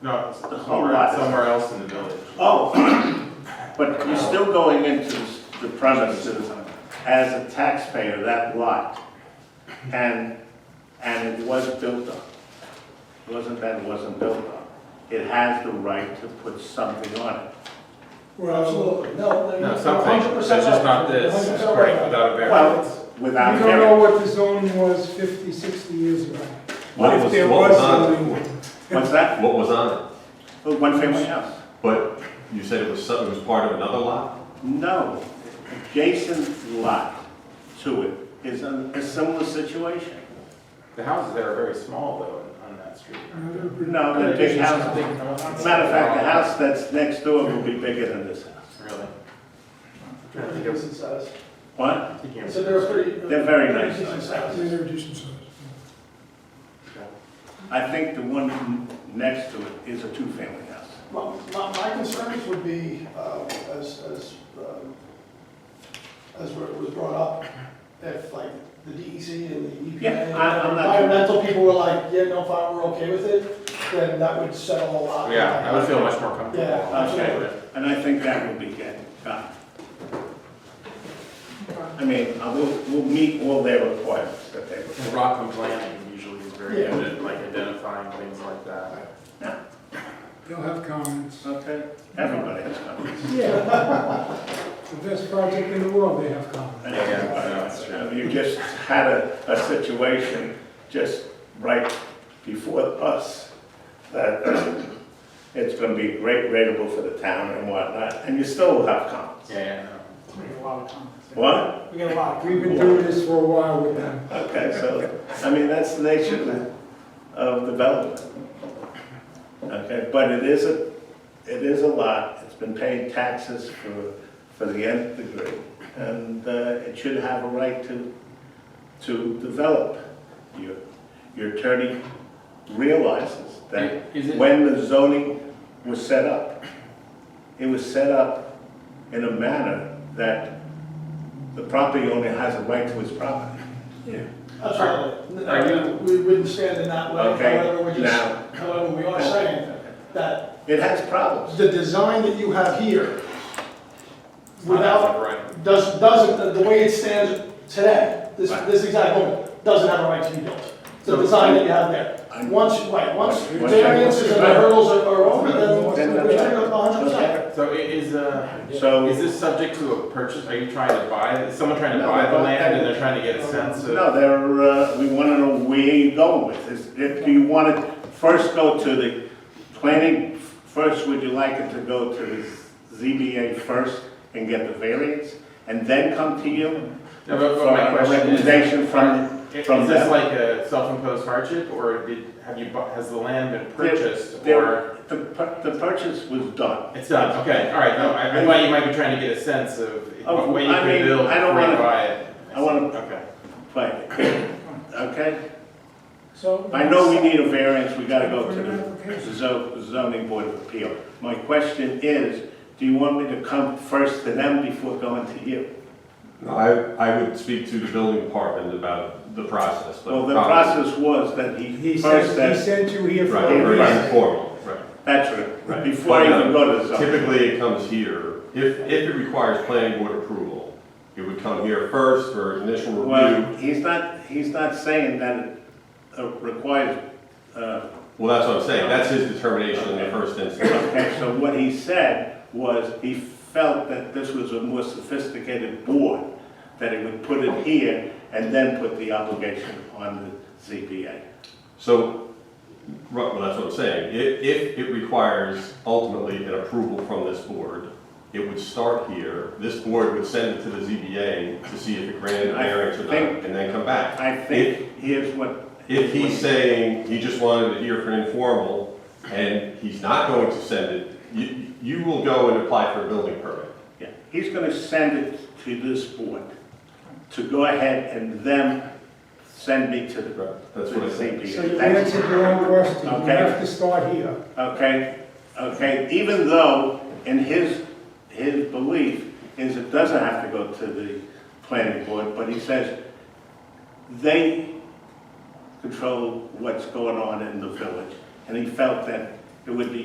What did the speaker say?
No, it's whole lot. somewhere else in the village. Oh, but you're still going into the premises as a taxpayer, that lot. And, and it was built up. It Wasn't that it wasn't built up. It has the right to put something on it. Absolutely, no, no. No, something, that's just not this, it's great, without a variance. Well, You without don't know hearing. what the zoning was 50, 60 years ago. What If was- there was what was on it? zoning. What's that? What was on it? Well, One family house? But you said it was something, it was part of another lot? No. Adjacent lot to it is a a similar situation. The houses there are very small though, on- on that street. No, the big house, Mhm. matter of fact, the house that's next door will be bigger than this house. Really? Decent size. What? So they're pretty. They're very nice pretty decent size. They're size. very decent size. I think the one n- next to it is a two-family house. My, my my concerns would be, uh, as, as, um, as where it was brought up, if like the DEC and the EPA. Yeah, I- I'm not- Environmental people were like, yeah, no, fine, we're okay with it, then that would settle a lot. Yeah, I would feel much more comfortable. Uh, Yeah, absolutely. And I think that will be good, gone. I mean, I will, will meet all their requirements that they And were. Rockland planning usually is very Yeah. good at like identifying things like that. They'll have comments. Okay. Everybody has comments. Yeah. The best project in the world, they have comments. And Yeah, everybody I know, has it's comments. You just had a, a situation just right before us that it's gonna be great rateable for the town and whatnot, and you still have comments. Yeah, yeah, no. We get a lot of comments. What? We get a lot Ah, of We've been doing this for a while with them. Okay, so, I mean, that's the nature of the- of development. Okay, but it is a, it is a lot, it's been paying taxes for, for the nth degree, and uh, it should have a right to, to develop. Your, your attorney realizes that Is it- when the zoning was set up, it was set up in a manner that the property owner has a right to his property. Absolutely. Are you- We wouldn't stand in that way, Okay, however, we just, now- however, we are saying that It has problems. the design that you have here, without Right. does, doesn't, the way it stands today, this, Right. this exact home, doesn't have a right to be built. The design that you have there. Once, right, once Once- variances and the hurdles are are over, then Then- we turn it up hundred percent. So i- is, uh, So- is this subject to a purchase? Are you trying to buy, is someone trying to No, buy the but- land and they're trying to get a sense of? No, they're, uh, we want to know where you're going with this. If you want to first go to the planning, first, would you like it to go to the ZBA first and get the variance? And then come to you No, for but but my a question is. recommendation from, Is from this them? like a self-imposed hardship, or did, have you, bu- has the land been purchased, or? There- The, pur- the purchase was done. It's done, okay, all right, no, I, I thought you might be trying to get a sense of Of- what way you Oh, I mean, could build I don't before you wanna- buy it. I wanna- Okay. But, okay? So. I know we need a variance, we gotta go to For an the application. zo- zoning board of appeal. My question is, do you want me to come first to them before going to you? No, I, I would speak to the building department about the process, but. Well, the probably- process was that he He first sent, he said, sent you here for Right, a Right. very reason. informal, right. that's right, Right. before I But, uh, even go to the zoning. Typically, it comes here, if, if it requires planning board approval, it would come here first for initial Well, review. he's not, he's not saying that it uh, requires, uh, Well, that's what I'm saying, that's his determination in the first instance. okay, so what he said was, he felt that this was a more sophisticated board, that he would put it here and then put the obligation on the ZBA. So, right, well, that's what I'm saying, if, if it requires ultimately an approval from this board, it would start here, this board would send it to the ZBA to see if it granted a I variance or not, think- and then come back. I think here's what. If he's saying he just wanted it here for an informal, and he's not going to send it, you, you will go and apply for a building permit. Yeah, He's gonna send it to this board to go ahead and then send me to the, to That's the what I think. So you ZBA. That's- answered your own question. You Okay. have to start here. Okay, okay, even though in his, his belief is it doesn't have to go to the planning board, but he says they control what's going on in the village. And he felt that it would be